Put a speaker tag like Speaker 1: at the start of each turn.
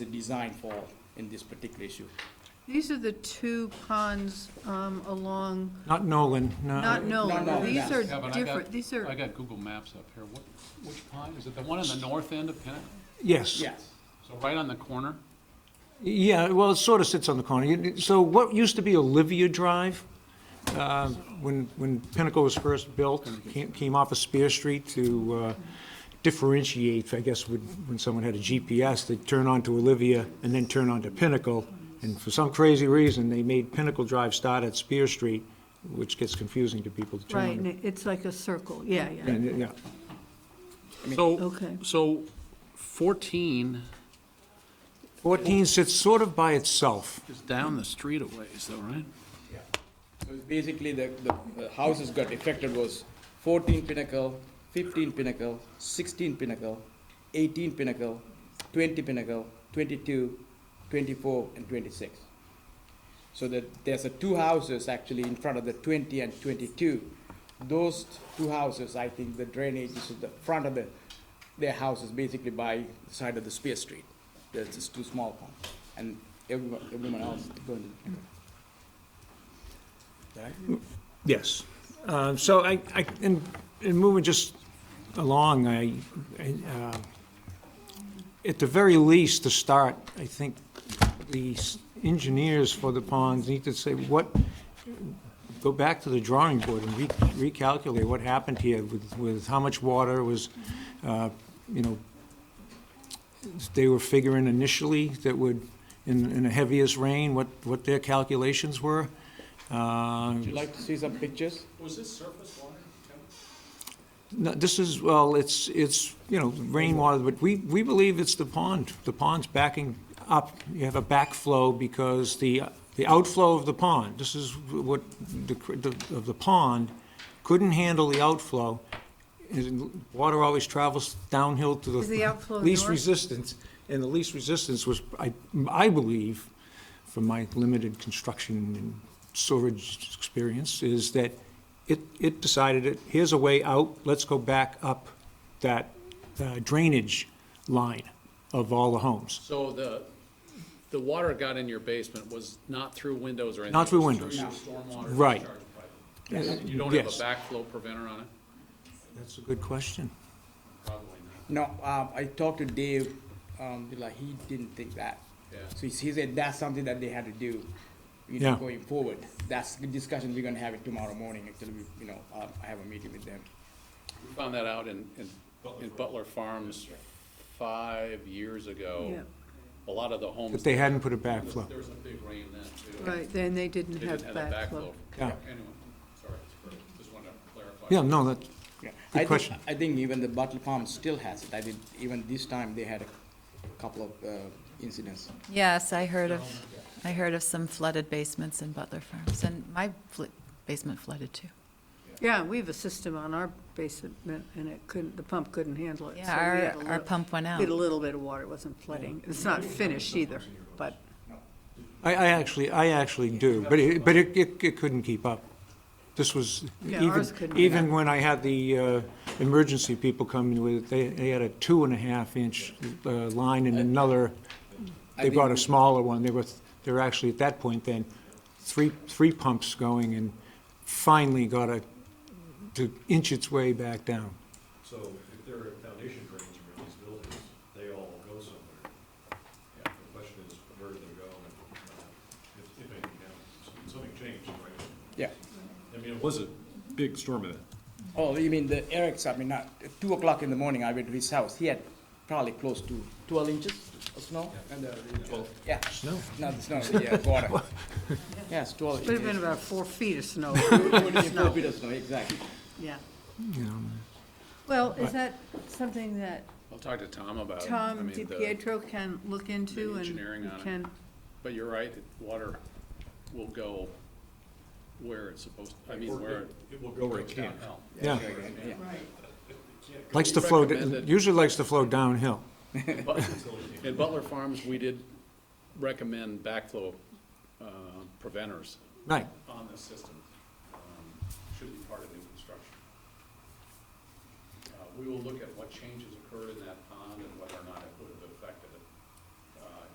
Speaker 1: the design for in this particular issue.
Speaker 2: These are the two ponds um, along,
Speaker 3: Not Nolan,
Speaker 4: Uh,
Speaker 2: not
Speaker 3: no.
Speaker 2: Nolan,
Speaker 1: no,
Speaker 2: these are
Speaker 4: Yeah, but I got-
Speaker 2: different, these
Speaker 4: I
Speaker 2: are,
Speaker 4: got Google Maps up here. What, which pond? Is it the one on the north end of Pinnacle?
Speaker 3: Yes.
Speaker 1: Yes.
Speaker 4: So right on the corner?
Speaker 3: Yeah, well, it sort of sits on the corner. You- So what used to be Olivia Drive, uh, when, when Pinnacle was first built, came- came off of Spear Street to uh, differentiate, I guess, when when someone had a GPS, they'd turn onto Olivia and then turn onto Pinnacle. And for some crazy reason, they made Pinnacle Drive start at Spear Street, which gets confusing to people to turn.
Speaker 2: right,
Speaker 3: on-
Speaker 2: and it's like a circle, yeah, yeah,
Speaker 3: and, Yeah,
Speaker 4: So,
Speaker 2: okay.
Speaker 4: so 14
Speaker 3: 14 sits sort of by itself.
Speaker 4: is down the street a ways though, right?
Speaker 1: So it's Basically, the, the uh, houses got affected was fourteen Pinnacle, fifteen Pinnacle, sixteen Pinnacle, eighteen Pinnacle, twenty Pinnacle, 22, 24, and twenty-six. So that there's a two houses actually in front of the twenty and twenty-two. Those two houses, I think the drainage is at the front of the, their houses basically by the side of the Spear Street. There's just two small ones, and everyone, everyone else going to the Pinnacle. Right?
Speaker 3: Yes. Uh, So I, I- in in moving just along, I, I, uh, at the very least, to start, I think the s- engineers for the ponds need to say what, go back to the drawing board and re- recalculate what happened here with, with how much water was, uh, you know, they were figuring initially that would, in, in the heaviest rain, what, what their calculations were. Uh,
Speaker 1: Would you like to see some pictures?
Speaker 4: Was this surface water?
Speaker 3: No, this is, well, it's, it's, you know, rainwater, but we, we believe it's the pond. The pond's backing up. You have a backflow because the, the outflow of the pond, this is what, the, the- of the pond, couldn't handle the outflow. And Water always travels downhill to the
Speaker 2: Is the outflow
Speaker 3: least
Speaker 2: north?
Speaker 3: resistance, and the least resistance was, I, I believe, from my limited construction and storage experience, is that it, it decided it, here's a way out, let's go back up that uh, drainage line of all the homes.
Speaker 4: So the, the water got in your basement was not through windows or anything?
Speaker 3: Not through
Speaker 4: It was
Speaker 3: windows.
Speaker 4: your stormwater
Speaker 3: Right.
Speaker 4: discharge pipe.
Speaker 3: Yes.
Speaker 4: You don't have a backflow preventer on it?
Speaker 3: That's a good question.
Speaker 4: Probably not.
Speaker 1: No, um, I talked to Dave, um, like, he didn't think that.
Speaker 4: Yeah.
Speaker 1: So he, he said that's something that they had to do, you know,
Speaker 3: Yeah.
Speaker 1: going forward. That's the discussion we're gonna have it tomorrow morning, actually, we, you know, um, I have a meeting with them.
Speaker 4: We Found that out in, in- in Butler Farms five years ago. A lot of the homes.
Speaker 3: But they hadn't put a backflow.
Speaker 4: There was a big rain then, too.
Speaker 2: Right, then they
Speaker 4: They
Speaker 2: didn't have
Speaker 4: didn't have that backflow.
Speaker 2: backflow.
Speaker 3: Yeah.
Speaker 4: Anyway, sorry, just wanted to clarify.
Speaker 3: Yeah, no, that,
Speaker 1: Yeah.
Speaker 3: Good
Speaker 1: I think-
Speaker 3: question.
Speaker 1: I think even the Butler Farm still has it. I did, even this time, they had a couple of, uh, incidents.
Speaker 5: Yes, I heard of, I heard of some flooded basements in Butler Farms, and my fl- basement flooded too.
Speaker 2: Yeah, we have a system on our basement, and it couldn't, the pump couldn't handle it. so we had
Speaker 5: Yeah,
Speaker 2: a
Speaker 5: our, our
Speaker 2: little-
Speaker 5: pump went out.
Speaker 2: Did a little bit of water, it wasn't flooding, it's not finished either, but,
Speaker 3: I, I actually, I actually do, but it, but it, it it couldn't keep up. This was,
Speaker 2: Yeah,
Speaker 3: even,
Speaker 2: ours couldn't keep
Speaker 3: even when I had the, uh, emergency people come in with, it, they, they had a two and a half inch, uh, line and another,
Speaker 1: I
Speaker 3: they
Speaker 1: think
Speaker 3: brought a
Speaker 1: we-
Speaker 3: smaller one, they were, th- they were actually at that point then, three, three pumps going and finally got a, to inch its way back down.
Speaker 6: So if there are foundation drains around these buildings, they all go somewhere. The question is, where do they go and uh, if, if anything happens? Something changed, right?
Speaker 1: Yeah.
Speaker 6: I mean, it was a big storm event.
Speaker 1: Oh, you mean the Eric's, I mean, not, at two o'clock in the morning, I went to his house. He had probably close to twelve inches of snow. And, uh, Yeah.
Speaker 3: Snow.
Speaker 1: No, it's not, yeah, uh, water. Yes, twelve
Speaker 2: it would have been
Speaker 1: inches.
Speaker 2: about four feet of snow,
Speaker 1: Four feet of snow, exactly.
Speaker 2: yeah.
Speaker 3: you know.
Speaker 2: Well, is that something that
Speaker 4: I'll talk to Tom about it. I
Speaker 2: Tom
Speaker 4: mean, the-
Speaker 2: DiPietro can look into and
Speaker 4: engineering on it.
Speaker 2: can,
Speaker 4: But you're right, that water will go where it's supposed, I mean, where.
Speaker 6: It will go where it
Speaker 4: goes
Speaker 6: can.
Speaker 4: downhill.
Speaker 3: Yeah,
Speaker 1: Yeah.
Speaker 3: likes to flow,
Speaker 4: recommend that-
Speaker 3: usually likes to flow downhill.
Speaker 4: But- In Butler Farms, we did recommend backflow uh, preventers
Speaker 3: Right,
Speaker 4: on this system. Um, Should be part of new construction. Uh, We will look at what changes occurred in that pond and whether or not it